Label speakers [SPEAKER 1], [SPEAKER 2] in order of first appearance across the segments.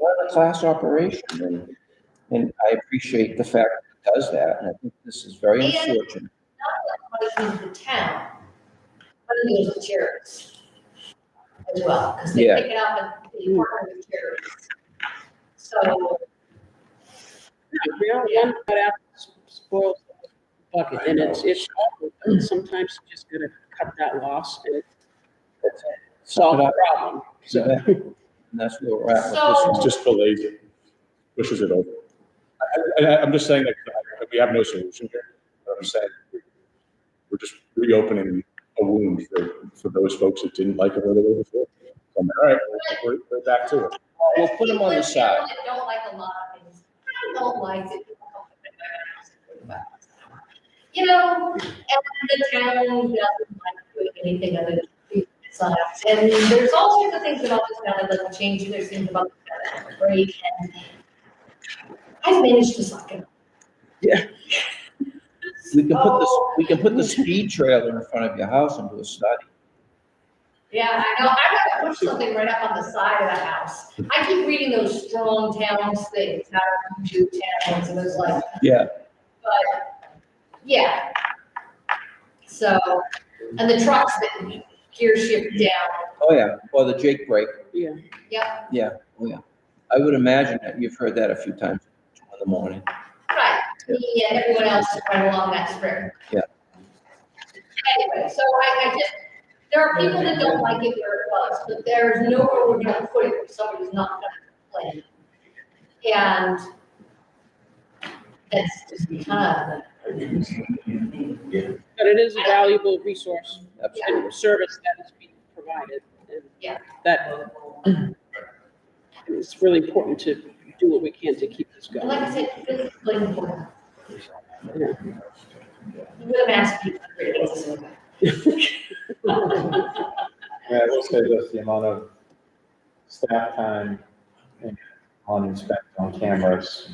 [SPEAKER 1] run a class operation, and, and I appreciate the fact that it does that, and I think this is very
[SPEAKER 2] And-
[SPEAKER 1] unfortunate.
[SPEAKER 2] not the town, but it is the charities as well, because they
[SPEAKER 1] Yeah.
[SPEAKER 2] pick it up and they partner with charities. So,
[SPEAKER 3] We all one cut out spoils the bucket, and it's, it's, awful, but sometimes you just gotta cut that loss and
[SPEAKER 1] That's it.
[SPEAKER 3] solve
[SPEAKER 1] Cut
[SPEAKER 3] the
[SPEAKER 1] out.
[SPEAKER 3] problem.
[SPEAKER 1] So
[SPEAKER 3] So,
[SPEAKER 1] that- And that's where we're at with this.
[SPEAKER 2] So-
[SPEAKER 1] one.
[SPEAKER 4] It just delays it, pushes it over. I, I, I'm just saying that uh, we have no solution here. But I'm saying we- we're just reopening a wound for, for those folks that didn't like it where they were before. I'm like, All right, we're, we're back to it.
[SPEAKER 1] We'll put them on the
[SPEAKER 2] People
[SPEAKER 1] side.
[SPEAKER 2] that Don't like a lot of things. I don't like it. You know, and the town doesn't like doing anything other than treat itself. And there's all sorts of things about this town that doesn't change. There's things about the town that are great and I've managed to suck it. up.
[SPEAKER 1] Yeah. We can put this,
[SPEAKER 2] So,
[SPEAKER 1] we can put the speed trailer in front of your house and do a study.
[SPEAKER 2] Yeah, I know. I gotta push something right up on the side of the house. I keep reading those strong towns things, how to do towns and those like,
[SPEAKER 1] Yeah.
[SPEAKER 2] But, yeah. So, and the trucks that gear shift down,
[SPEAKER 1] Oh, yeah, or the Jake break.
[SPEAKER 3] yeah,
[SPEAKER 2] yep,
[SPEAKER 1] Yeah, oh, yeah. I would imagine that you've heard that a few times in the morning.
[SPEAKER 2] right, me and everyone else is right along that strip.
[SPEAKER 1] Yeah.
[SPEAKER 2] Anyway, so I, I just, there are people that don't like it where it was, but there's nowhere we're gonna put it if somebody's not gonna complain. And that's just kind
[SPEAKER 3] but it is a valuable resource
[SPEAKER 1] Absolutely.
[SPEAKER 3] and service that is being provided. and
[SPEAKER 2] Yeah.
[SPEAKER 3] That, it's really important to do what we can to keep this
[SPEAKER 2] of,
[SPEAKER 3] going.
[SPEAKER 2] like I said, it's like, with
[SPEAKER 3] Yeah.
[SPEAKER 2] a mask, people, it's a-
[SPEAKER 5] Yeah, I will say this, the amount of staff time and on inspection on cameras,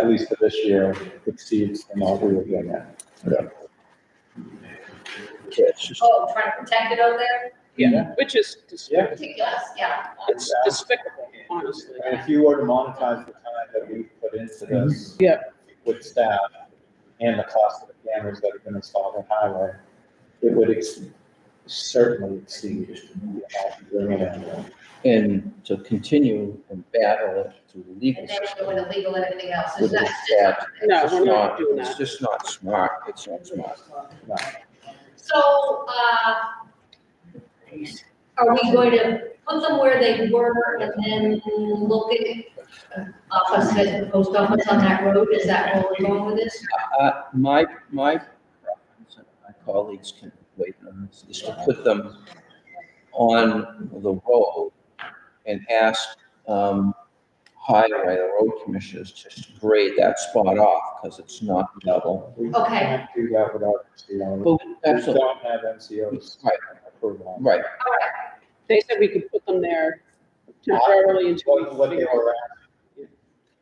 [SPEAKER 5] at least for this year, exceeds the amount we were doing that.
[SPEAKER 1] Yeah, it's just-
[SPEAKER 2] Oh, trying to protect it out there?
[SPEAKER 3] Yeah, which is
[SPEAKER 5] Yeah.
[SPEAKER 3] despicable.
[SPEAKER 2] Ridiculous, yeah.
[SPEAKER 3] It's despicable, honestly.
[SPEAKER 5] And if you were to monetize the time that we put into this.
[SPEAKER 1] Mm-hmm.
[SPEAKER 3] Yeah.
[SPEAKER 5] With staff and the cost of the cameras that have been installed on highway, it would ex- certainly exceed the amount we're doing it in.
[SPEAKER 1] And to continue and battle it through the legal
[SPEAKER 2] And then
[SPEAKER 1] system.
[SPEAKER 2] go into legal and everything else,
[SPEAKER 1] With
[SPEAKER 2] it's
[SPEAKER 1] the
[SPEAKER 2] not,
[SPEAKER 1] stat.
[SPEAKER 3] No,
[SPEAKER 1] It's
[SPEAKER 3] we're not doing
[SPEAKER 1] It's
[SPEAKER 3] that.
[SPEAKER 1] just not smart. It's not smart.
[SPEAKER 5] No.
[SPEAKER 2] so, uh, are we going to put them where they were and then look at office, the post office on that road, is that where we're going with this?
[SPEAKER 1] Uh, my, my, preference, and my colleagues can wait on this, is to put them on the road and ask, um, highway, the road commissioners to grade that spot off, because it's not level.
[SPEAKER 5] We
[SPEAKER 2] Okay.
[SPEAKER 5] can't Do that without, you know.
[SPEAKER 1] But,
[SPEAKER 5] We
[SPEAKER 1] absolutely,
[SPEAKER 5] don't have MCOs
[SPEAKER 1] Right.
[SPEAKER 5] approval. on it.
[SPEAKER 1] right,
[SPEAKER 2] All right,
[SPEAKER 3] They said we could put them there temporarily until
[SPEAKER 5] What,
[SPEAKER 3] we
[SPEAKER 5] what they
[SPEAKER 3] figure out.
[SPEAKER 5] were asked,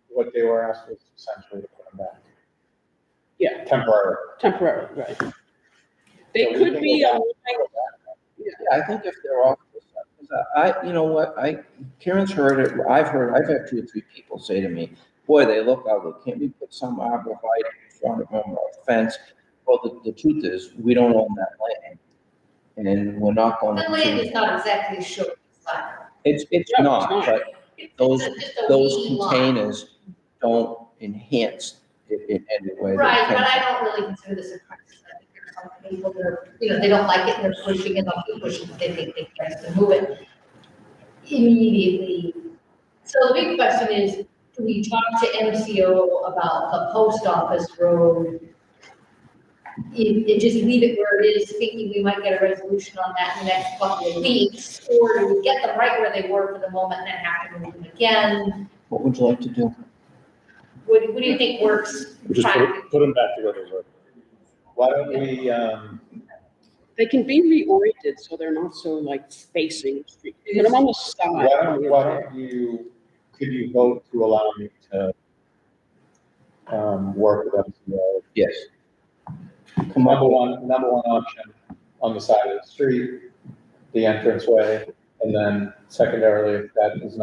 [SPEAKER 5] what they were asked was essentially to put them back.
[SPEAKER 3] Yeah.
[SPEAKER 5] Temporary.
[SPEAKER 3] Temporarily, right. They
[SPEAKER 5] So we
[SPEAKER 3] could
[SPEAKER 5] can
[SPEAKER 3] be,
[SPEAKER 5] go
[SPEAKER 3] um,
[SPEAKER 1] Yeah, I think if they're off, I, you know what, I, Karen's heard it, I've heard, I've had two or three people say to me, boy, they look ugly, can't we put some arborvitae in front of them or a fence? Well, the, the truth is, we don't own that land, and we're not
[SPEAKER 2] the
[SPEAKER 1] gonna.
[SPEAKER 2] land is not exactly sure, it's like,
[SPEAKER 1] It's, it's
[SPEAKER 3] No,
[SPEAKER 1] not,
[SPEAKER 3] it's not.
[SPEAKER 1] but
[SPEAKER 2] it's
[SPEAKER 1] Those-
[SPEAKER 2] just a
[SPEAKER 1] those
[SPEAKER 2] wee lot.
[SPEAKER 1] containers don't enhance it in any way. they
[SPEAKER 2] Right, but
[SPEAKER 1] can.
[SPEAKER 2] I don't really consider this a crisis. I think there's some people that are, you know, they don't like it, and they're pushing it, they'll keep pushing, it, they think they can to move it immediately. So the big question is, do we talk to MCO about the post office road? It, it just leave it where it is, thinking we might get a resolution on that in the next couple of weeks? Or do we get them right where they were for the moment and then have to move them again?
[SPEAKER 1] What would you like to do?
[SPEAKER 2] What, what do you think works
[SPEAKER 4] We just put,
[SPEAKER 2] practically?
[SPEAKER 4] it- put them back to where they were.
[SPEAKER 5] Why don't we, um,
[SPEAKER 3] they can be reoriented, so they're not so like facing the street. Put them on the side.
[SPEAKER 5] why don't, why don't you, could you vote to allow me to, um, work with MCO?
[SPEAKER 1] Yes. Come
[SPEAKER 5] Number
[SPEAKER 1] on,
[SPEAKER 5] one, number one option, on the side of the street, the entranceway, and then secondarily, if that is not